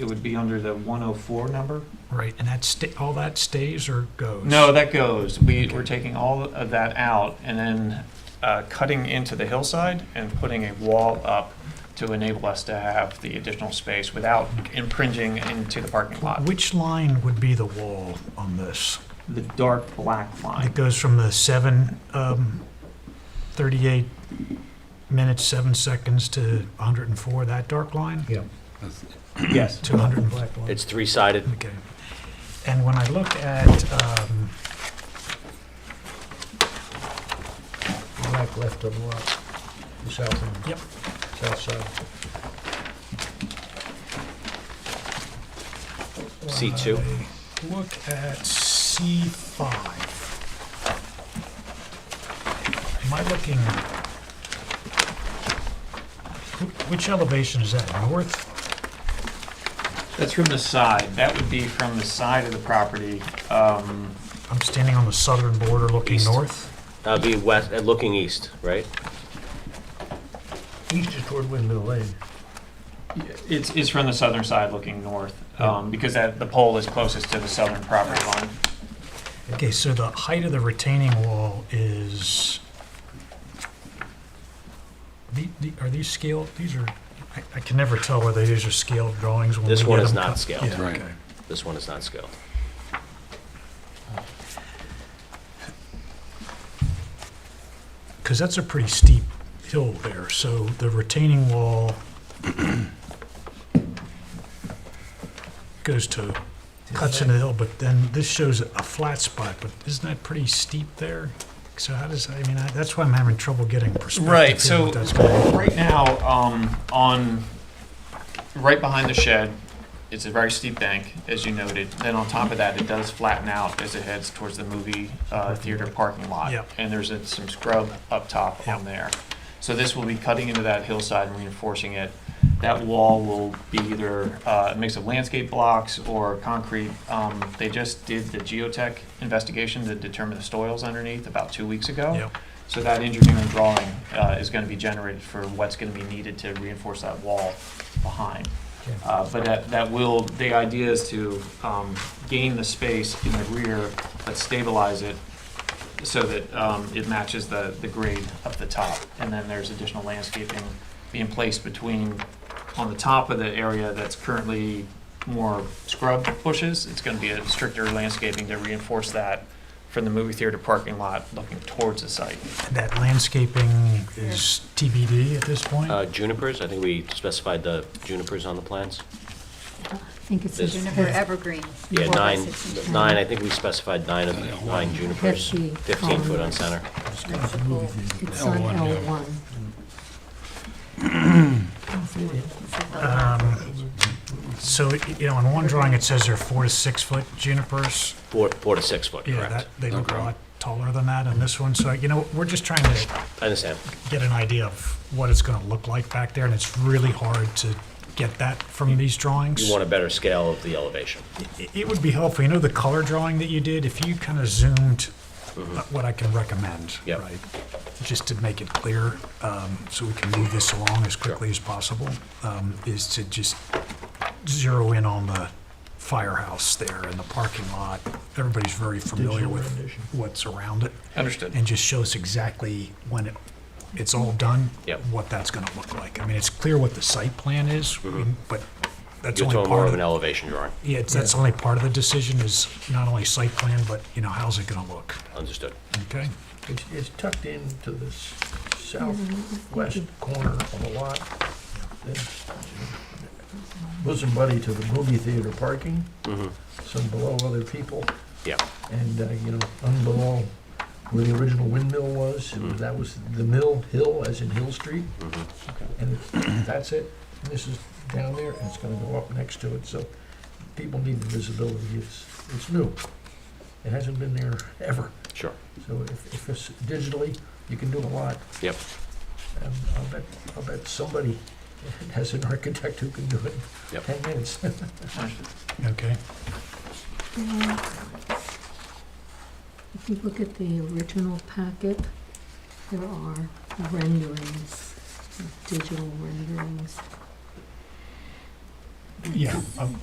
It would be under the 104 number? Right, and that sta, all that stays or goes? No, that goes. We, we're taking all of that out and then uh, cutting into the hillside and putting a wall up to enable us to have the additional space without impringing into the parking lot. Which line would be the wall on this? The dark black It line. goes from the seven, um, thirty-eight minutes, seven seconds to hundred and four, that dark line? Yeah. Yes. To hundred and black line? It's three-sided. Okay. And when I look at, um, Black left of the lot, the south end. Yep. South side. C2. when I Look at C five. Am I looking? wh- Which elevation is that, north? That's from the side. That would be from the side of the property. Um, I'm standing on the southern border looking East. north. That'd be west, uh, looking east, right? East is toward Windmill Lane. It's, it's from the southern side looking north, um, because that, the pole is closest to the southern property line. Okay, so the height of the retaining wall is, the- the- are these scaled, these are, I- I can never tell whether these are scaled drawings when we This one get is them not cut. scaled. Yeah, Right. okay. This one is not scaled. Because that's a pretty steep hill there, so the retaining wall goes to, cuts into the hill, but then this shows a flat spot, but isn't that pretty steep there? So how does, I mean, I- that's why I'm having trouble getting perspective. Right, here so what that's gonna be. right now, um, on, right behind the shed, it's a very steep bank, as you noted. Then on top of that, it does flatten out as it heads towards the movie, uh, theater parking lot. Yep. And there's uh, some scrub up top on there. So this will be cutting into that hillside and reinforcing it. That wall will be either uh, a mix of landscape blocks or concrete. Um, They just did the geotech investigation to determine the soils underneath about two weeks ago. Yep. So that engineering drawing uh, is going to be generated for what's going to be needed to reinforce that wall behind. Okay. Uh, But that, that will, the idea is to um, gain the space in the rear, but stabilize it so that um, it matches the, the grade up the top. And then there's additional landscaping being placed between, on the top of the area that's currently more scrub bushes. It's going to be a stricter landscaping to reinforce that from the movie theater parking lot looking towards the site. That landscaping is TBD at this point? Uh, junipers, I think we specified the junipers on the plans. I think it's a This- juniper evergreen. Yeah, four by nine, six inch nine, I think we specified nine of, the- nine junipers, Fifty 15 foot on columns. center. Principal. It's on L1, yeah. L1. Um, So, it- you know, in one drawing, it says they're four to six foot junipers. Four, four to six foot, Yeah, that, correct. they look a Okay. lot taller than that in this one, so, you know, we're just trying to I understand. get an idea of what it's gonna look like back there, and it's really hard to get that from these drawings. You want a better scale of the elevation. It- It would be helpful, you know, the color drawing that you did, if you kind of zoomed uh, what I can recommend, Mm-hmm. Yep. right? Just to make it clear, um, so we can move this along as quickly as possible, um, is to just zero in on the firehouse there and the parking lot. Everybody's very familiar with rendition. what's around it Understood. and just shows exactly when it, it's all done. Yep. What that's gonna look like. I mean, it's clear what the site plan is, I mean, but that's Mm-hmm. only You're talking part more of of the an elevation drawing. yeah, it's- that's only part of the decision is not only site plan, but, you know, how's it gonna look, Understood. okay? It's, it's tucked into the s- southwest corner of the lot. That's Bosom buddy to the movie theater parking, Mhm. some below other people, Yeah, and, uh, you know, unbelow where the original windmill was, Mm-hmm. it was- that was the mill hill, as in Hill Street. Mhm. And it's- that's it, And this is down there, and it's gonna go up next to it, so people need the visibility, it's, it's new. It hasn't been there ever. sure. So if, if it's digitally, you can do a lot. Yep. And I'll bet, I'll bet somebody has an architect who can do it in Yep. ten minutes. Understood. Okay, If you look at the original packet, there are renderings, digital renderings. Yeah, um,